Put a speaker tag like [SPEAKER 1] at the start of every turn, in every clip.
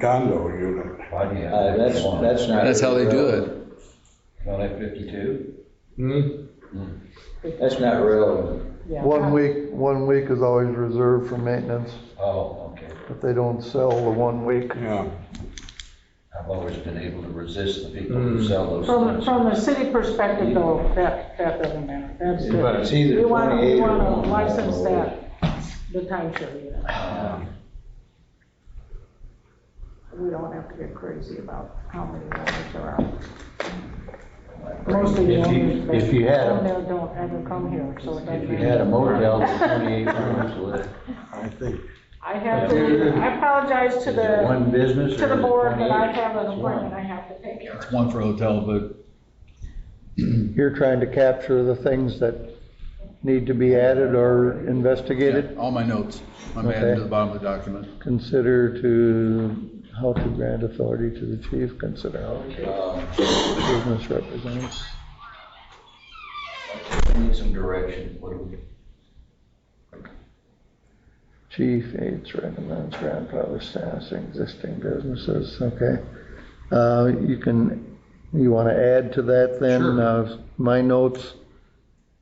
[SPEAKER 1] condo unit.
[SPEAKER 2] Why do you have
[SPEAKER 3] Uh, that's,
[SPEAKER 2] 51?
[SPEAKER 3] that's not.
[SPEAKER 4] That's how they do
[SPEAKER 3] relevant.
[SPEAKER 4] it.
[SPEAKER 2] Don't have fifty-two?
[SPEAKER 4] Hmm?
[SPEAKER 3] That's not relevant.
[SPEAKER 5] Yeah.
[SPEAKER 6] One week, one week is always reserved for maintenance,
[SPEAKER 2] Oh, okay.
[SPEAKER 6] if they don't sell the one week.
[SPEAKER 1] Yeah,
[SPEAKER 2] I've always been able to resist the people
[SPEAKER 6] Mm.
[SPEAKER 2] who sell those
[SPEAKER 5] From,
[SPEAKER 2] things.
[SPEAKER 5] from the city perspective though, that, that doesn't matter, that's the.
[SPEAKER 3] But it's either
[SPEAKER 5] We wanna, we
[SPEAKER 3] 28 or
[SPEAKER 5] wanna
[SPEAKER 3] one.
[SPEAKER 5] license that, the timeshare unit. Um, We don't have to get crazy about how many owners are out. Most of the
[SPEAKER 3] If you-
[SPEAKER 5] owners
[SPEAKER 3] if you
[SPEAKER 5] that
[SPEAKER 3] had a-
[SPEAKER 5] come there don't ever come here, so it doesn't
[SPEAKER 3] If you
[SPEAKER 5] matter.
[SPEAKER 3] had a motel with twenty-eight rooms, would it
[SPEAKER 1] I think,
[SPEAKER 5] I have to, I apologize to
[SPEAKER 3] is it
[SPEAKER 5] the,
[SPEAKER 3] one business or
[SPEAKER 5] to the
[SPEAKER 3] is it
[SPEAKER 5] board, but I
[SPEAKER 3] 28?
[SPEAKER 5] have an
[SPEAKER 3] It's
[SPEAKER 5] appointment
[SPEAKER 3] one.
[SPEAKER 5] I have to take care of.
[SPEAKER 4] It's one for hotel, but
[SPEAKER 6] You're trying to capture the things that need to be added or investigated,
[SPEAKER 4] yeah, all my notes. I'm adding to the bottom of the document.
[SPEAKER 6] consider to, how to grant authority to the chief, consider how to
[SPEAKER 3] Um,
[SPEAKER 6] business represents.
[SPEAKER 2] Uh, Need some direction, what do we?
[SPEAKER 6] Chief aids recommends grandfather status in existing businesses, okay? Uh, you can, you wanna add to that then?
[SPEAKER 4] Sure.
[SPEAKER 6] Uh, My notes,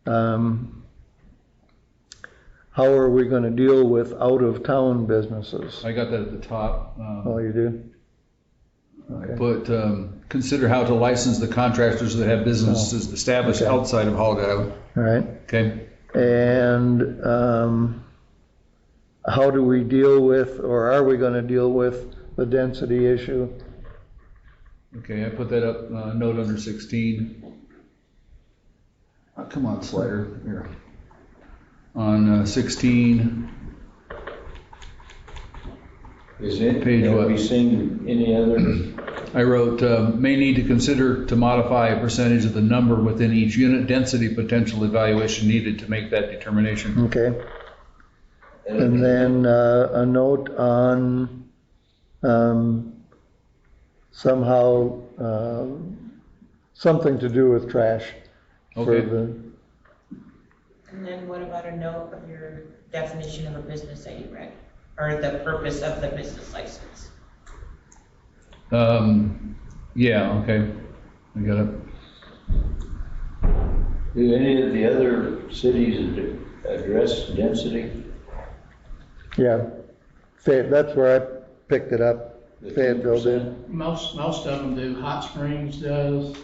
[SPEAKER 6] um, how are we gonna deal with out-of-town businesses?
[SPEAKER 4] I got that at the top. um,
[SPEAKER 6] Oh, you do? Okay,
[SPEAKER 4] But um, consider how to license the contractors that have
[SPEAKER 3] Oh.
[SPEAKER 4] businesses established
[SPEAKER 6] Okay.
[SPEAKER 4] outside of Holiday Island,
[SPEAKER 6] all right.
[SPEAKER 4] okay?
[SPEAKER 6] And um, how do we deal with, or are we gonna deal with the density issue?
[SPEAKER 4] Okay, I put that up, uh, note under 16. Oh, Come on, slider, here. On uh, 16,
[SPEAKER 3] Is it,
[SPEAKER 4] Page
[SPEAKER 3] have
[SPEAKER 4] what?
[SPEAKER 3] we seen any other,
[SPEAKER 4] I wrote, uh, may need to consider to modify a percentage of the number within each unit density potential evaluation needed to make that determination.
[SPEAKER 6] Okay? And then uh, a note on um, somehow, uh, something to do with trash. for
[SPEAKER 4] Okay.
[SPEAKER 6] the
[SPEAKER 7] And then what about a note of your definition of a business that you read, or the purpose of the business license?
[SPEAKER 4] Um, Yeah, okay, I got it.
[SPEAKER 3] do any of the other cities ad- address density?
[SPEAKER 6] Yeah, Fayette, that's where I picked it up,
[SPEAKER 3] The
[SPEAKER 6] Fayetteville did.
[SPEAKER 3] 10%?
[SPEAKER 8] Most, most of them do. Hot Springs does.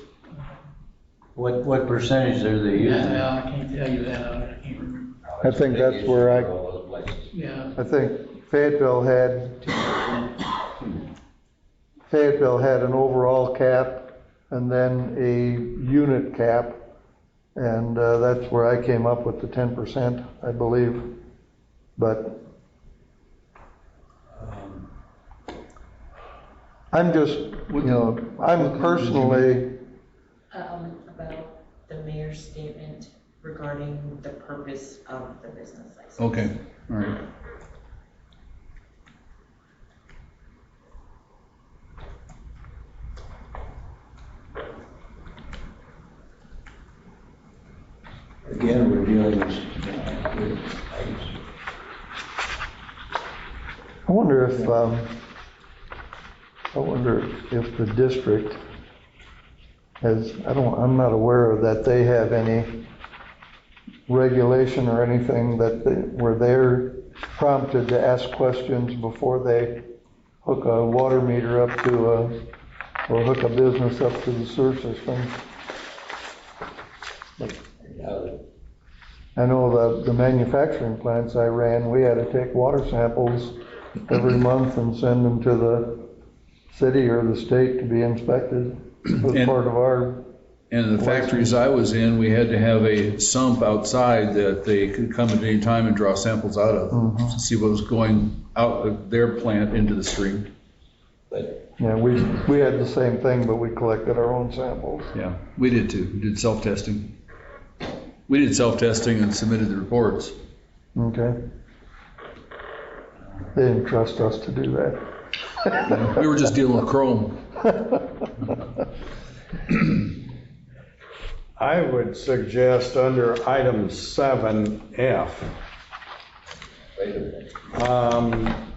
[SPEAKER 3] What, what percentage are they using?
[SPEAKER 8] Yeah, I can't tell you that. I can't remember.
[SPEAKER 6] I think that's where I-
[SPEAKER 2] All those places.
[SPEAKER 8] Yeah.
[SPEAKER 6] I think Fayetteville had, Fayetteville had an overall cap and then a unit cap. And uh, that's where I came up with the ten percent, I believe. But I'm just, you know, I'm personally,
[SPEAKER 7] Um, about the mayor's statement regarding the purpose of the business license.
[SPEAKER 4] Okay, all right.
[SPEAKER 3] Again, we're dealing with, uh, with-
[SPEAKER 6] I wonder if, um, I wonder if the district has, I don't, I'm not aware of that they have any regulation or anything that, they- where they're prompted to ask questions before they hook a water meter up to a, or hook a business up to the sewer system.
[SPEAKER 3] uh,
[SPEAKER 6] I know the, the manufacturing plants I ran, we had to take water samples every month and send them to the city or the state to be inspected. It was
[SPEAKER 4] And-
[SPEAKER 6] part of our,
[SPEAKER 4] And the factories I was in, we had to have a sump outside that they could come at any time and draw samples out of to see what was going out of their plant into the stream.
[SPEAKER 3] but
[SPEAKER 6] yeah, we, we had the same thing, but we collected our own samples.
[SPEAKER 4] Yeah, we did too. We did self-testing. We did self-testing and submitted the reports.
[SPEAKER 6] Okay? They didn't trust us to do that.
[SPEAKER 4] We were just dealing with chrome.
[SPEAKER 1] I would suggest under item seven F,
[SPEAKER 3] wait a minute.
[SPEAKER 1] um,